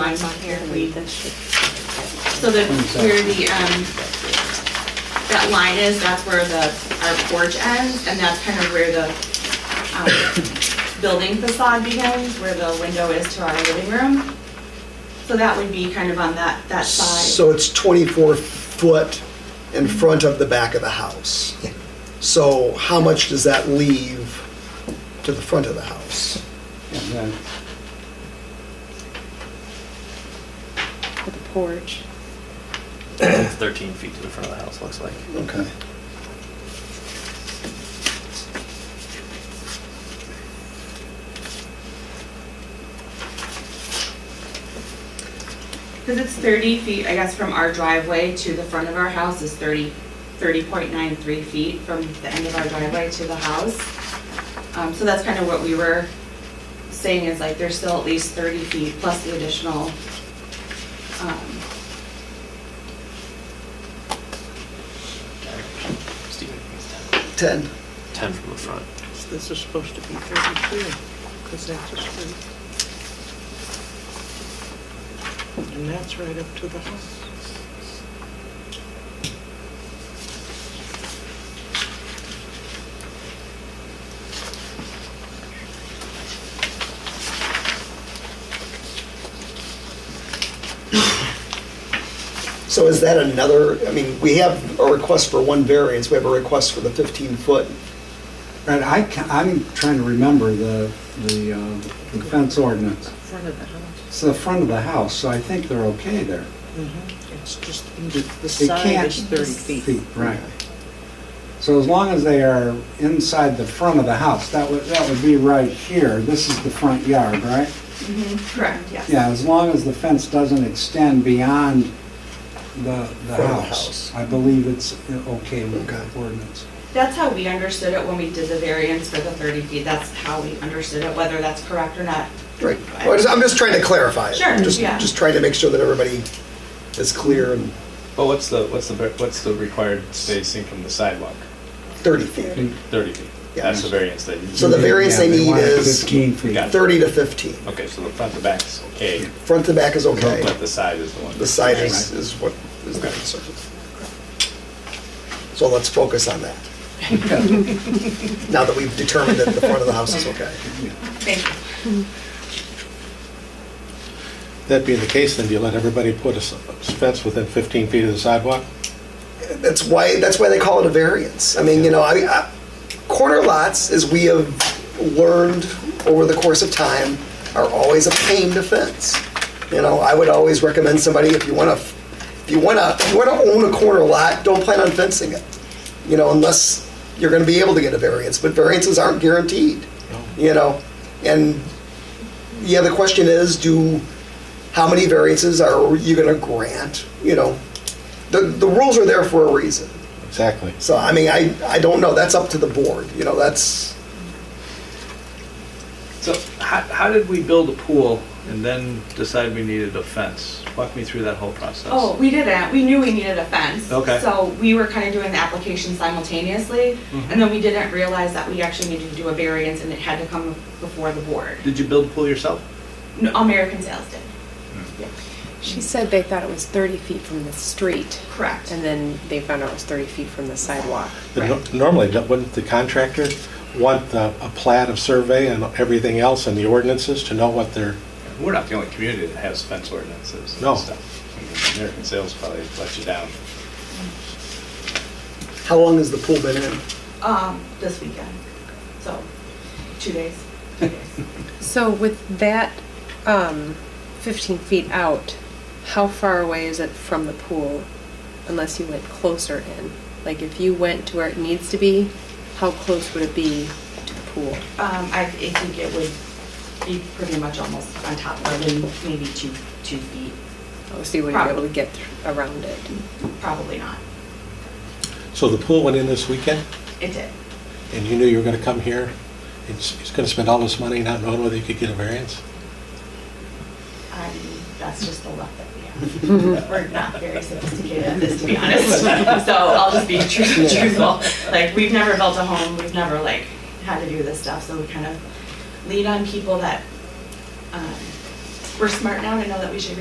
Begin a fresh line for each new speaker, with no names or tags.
lines on here, we, so the, where the, um, that line is, that's where the, our porch ends, and that's kind of where the, um, building facade begins, where the window is to our living room. So that would be kind of on that, that side.
So it's 24 foot in front of the back of the house. So how much does that leave to the front of the house?
Yeah,
with the porch.
It's 13 feet to the front of the house, looks like.
Okay.
Because it's thirty feet, I guess, from our driveway to the front of our house is thirty, thirty point nine three feet from the end of our driveway to the house. Um, so that's kind of what we were saying is like there's still at least thirty feet plus the additional, um,
Steven,
10.
10 from the front.
This is supposed to be 32, because that's a street. And that's right up to the house.
So is that another, I mean, we have a request for one variance, we have a request for the 15 foot.
Right, I can, I'm trying to remember the, the, uh, the fence ordinance.
Front of the house.
It's the front of the house, so I think they're okay there.
It's just, the the
They
side
can't-
is 30 feet.
Feet, right. So as long as they are inside the front of the house, that would, that would be right here. This is the front yard, right?
Mm-hmm. correct, yes.
Yeah, as long as the fence doesn't extend beyond the, the
Front of the house.
house. I believe it's uh, okay with
Okay.
the ordinance.
That's how we understood it when we did the variance for the thirty feet. That's how we understood it, whether that's correct or not.
Right. Well, just- I'm just trying to clarify. it.
Sure,
Just-
yeah.
Just trying to make sure that everybody is clear and
Well, what's the, what's the, what's the required spacing from the sidewalk?
30 feet.
Thirty feet.
Yeah.
That's the variance that you.
So the variance
Yeah,
they need
want
is
Fifteen feet.
Got it.
30 to 15.
Okay, so the front to back is okay,
Front to back is okay.
but the side is the one.
The side is, is what is the concern. So let's focus on that. Now that we've determined that the front of the house is okay.
Thank you.
That being the case, then do you let everybody put a s- fence within 15 feet of the sidewalk?
That's why, that's why they call it a variance. I mean, you know, I, I- corner lots, as we have learned over the course of time, are always a pain to fence. You know, I would always recommend somebody, if you want to, if you want to, if you want to own a corner lot, don't plan on fencing it. You know, unless you're going to be able to get a variance, but variances aren't guaranteed. You know, and yeah, the question is, do, how many variances are you going to grant? You know, the, the rules are there for a reason.
Exactly.
So, I mean, I, I don't know, that's up to the board, you know, that's,
So how, how did we build a pool and then decide we needed a fence? Walk me through that whole process.
Oh, we didn't. We knew we needed a fence.
Okay.
So we were kind of doing the application simultaneously,
Mm-hmm.
and then we didn't realize that we actually needed to do a variance and it had to come before the board.
Did you build a pool yourself?
No, American Sales did.
She said they thought it was 30 feet from the street,
Correct.
and then they found out it was 30 feet from the sidewalk.
But no- Normally, no- wouldn't the contractor want uh, a plat of survey and everything else and the ordinances to know what they're,
We're not the only community that has fence ordinances
No.
and stuff. I mean, American Sales probably let you down.
how long has the pool been in?
Um, this weekend. So, two days. Two days.
So with that um, 15 feet out, how far away is it from the pool unless you went closer in? Like if you went to where it needs to be, how close would it be to the pool?
Um, I, I think it would be pretty much almost on top of it, maybe two, two feet.
Oh, So you wouldn't be able to get thr- around it.
Probably not.
so the pool went in this weekend
It did.
and you knew you were going to come here? It's going to spend all this money not knowing whether you could get a variance?
Um, that's just the luck that we have. We're not very sophisticated at this, to be honest. So I'll just be true- truthful. Like, we've never built a home, we've never like had to do this stuff, so we kind of lean on people that, um, we're smart now to know that we should